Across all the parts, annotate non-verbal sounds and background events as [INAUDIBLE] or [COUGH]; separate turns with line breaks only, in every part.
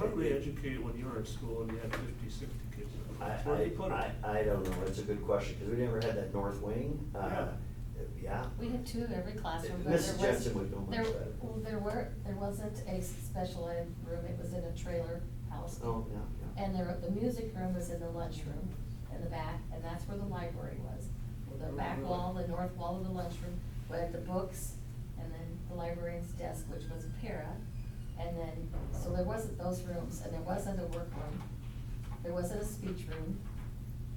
were they educated when you were at school and you had fifty, sixty kids? in the
I,
class? Where'd they put 'em?
I, I, I don't know, it's a good question, because we never had that north wing, uh, yeah.
We had two in every classroom, but there was.
Mrs. Jensen would know much
there-
better.
Well, there were, there wasn't a special ed room, it was in a trailer house.
Oh, yeah, yeah.
And there, the music room was in the lunchroom in the back, and that's where the library was. The back wall, the north wall of the lunchroom, where the books, and then the librarian's desk, which was a para. And then, so there wasn't those rooms, and there wasn't a workroom, there wasn't a speech room,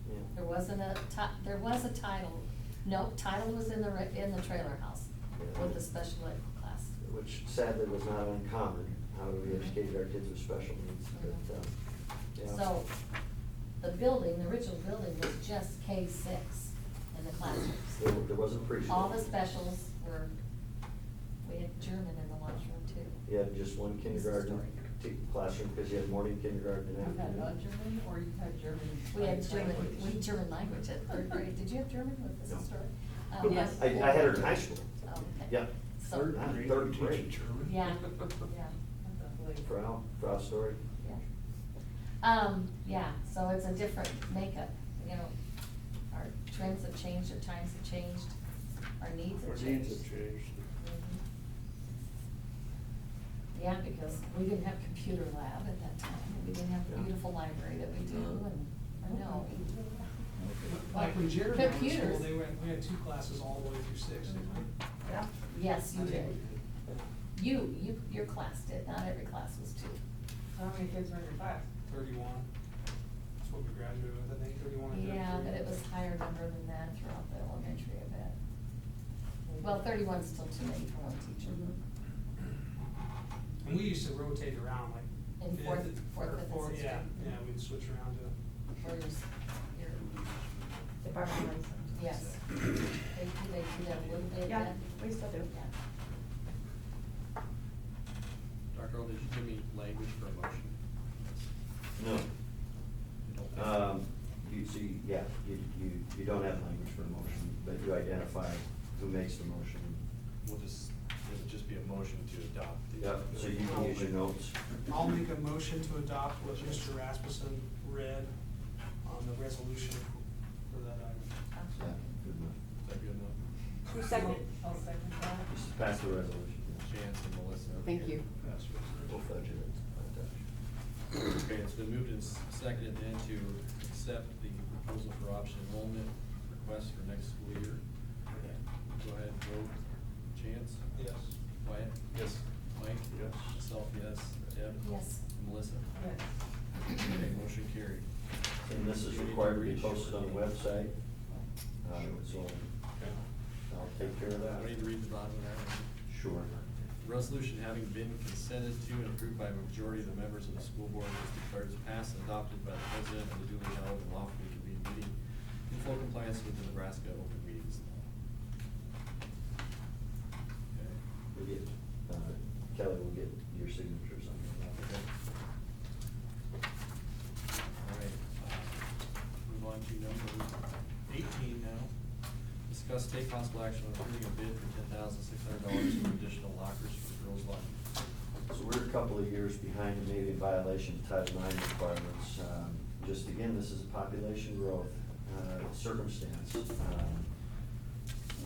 Yeah.
there wasn't a ti- there was a title, no, title was in the, re- in the trailer house with the special ed class.
Which sadly was not uncommon, how we educated our kids with special needs, but, uh, yeah.
So, the building, the original building was just K six in the
There,
classrooms.
there wasn't preschool.
All the specials were, we had German in the lunchroom too.
You had just one kindergarten
story.
t- classroom, because you had morning kindergarten and
You had a
afternoon.
German or you had German?
We had
like,
German,
language?
we had German language at third grade, did you have German with this
No.
historic?
Yes.
I, I had her in high school,
Oh, okay.
yeah.
So-
Third
I'm
grade,
third
you're
grade.
teaching German? [LAUGHS]
Yeah, yeah.
That's unbelievable.
Proud, proud story.
Yeah. Um, yeah, so it's a different makeup, you know, our trends have changed, our times have changed, our needs
Our
have
needs
changed.
have changed.
Mhm. Yeah, because we didn't have computer lab at that time, and we didn't have the
Yeah.
beautiful library that we do, and, or no.
Like when Jared and I were in school,
Computers.
they went, we had two classes all the way through six. didn't we?
Yes, you
I
did,
mean,
you, you, your class did, not every class was two.
So how many kids were in your class?
Thirty-one, that's what we graduated with, I think, thirty-one or thirty-three.
Yeah, but it was higher number than that throughout the elementary, I bet. Well, thirty-one's still too many for one teacher.
And we used to rotate around, like.
In
fifth,
fourth- fourth,
or
fifth, and
fourth,
sixth
Yeah,
grade.
yeah, we'd switch around to,
Or your, s- your,
Department heads.
yes. They, do- they do that a little bit.
Yeah,
but-
we still do.
Yeah.
Dr. Earl, did you give me language for a motion?
No,
You don't think-
Um, you see, yeah, you, you, you don't have language for a motion, but you identify who makes the motion.
We'll just, it'll just be a motion to adopt. the-
Yeah, so you can use your notes.
I'll make a motion to adopt what Mr. Rasmussen read on the resolution for that item.
I'll
Yeah,
second.
good enough.
Is that good enough?
Who seconded?
I'll second that.
Just pass the resolution. yeah.
Chance and Melissa. over
Thank
here.
you.
That's what's-
We'll fudge it. I'll touch it.
Okay, it's been moved and s- seconded then to accept the proposal for option enrollment request for next school year. Go ahead and vote. Chance?
Yes.
Wyatt? Yes. Mike?
Yes.
Myself, yes. Deb?
Yes.
And Melissa?
Yes.
Okay, motion carried.
And this is required to be posted on the website, uh, so I'll take care of
Do I need to
that.
read the bottom of that? one?
Sure.
Resolution having been consented to and approved by a majority of the members of the school board is declared as passed and adopted by the president of the duly held and lawfully convened meeting in full compliance with the Nebraska open meetings law. Okay.
We get, uh, Kelly will get your signatures on that.
All right, uh, move on to number eighteen now. Discuss take possible action on approving a bid for ten thousand six hundred dollars for additional lockers for the girls' locker.
So we're a couple of years behind, and maybe in violation of Title IX requirements. Um, Just again, this is a population growth uh, circumstance. Um,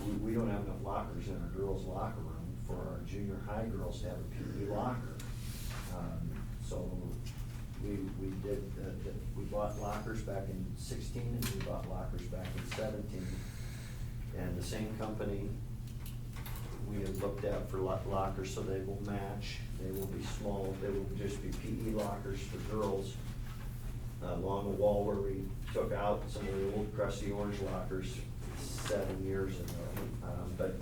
We, we don't have enough lockers in our girls' locker room for our junior high girls to have a PE locker. Um, So we, we did, uh, uh, we bought lockers back in sixteen and we bought lockers back in seventeen. And the same company we have looked at for lo- lockers, so they will match, they will be small, they will just be PE lockers for girls. uh, Along the wall where we took out some of the old crusty orange lockers seven years ago. Um, But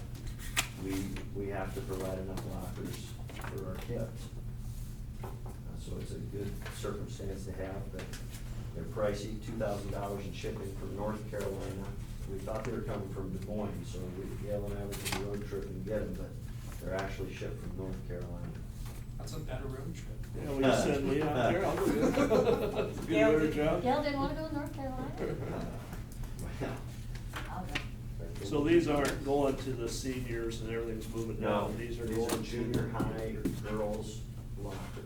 we, we have to provide enough lockers for our kids. Uh, So it's a good circumstance to have, but they're pricey, two thousand dollars in shipping from North Carolina. We thought they were coming from Des Moines, so we, Gail and I went on a road trip and get them, but they're actually shipped from North Carolina.
That's a better road trip.
Yeah, well, you send me out there, I'll go. [LAUGHS] Do
[LAUGHS]
a better job.
Gail didn't wanna go to North Carolina.
Wow.
I'll go.
So these aren't going to the seniors and everything's moving
No,
down,
these
these are
are
going to.
junior high girls' lockers.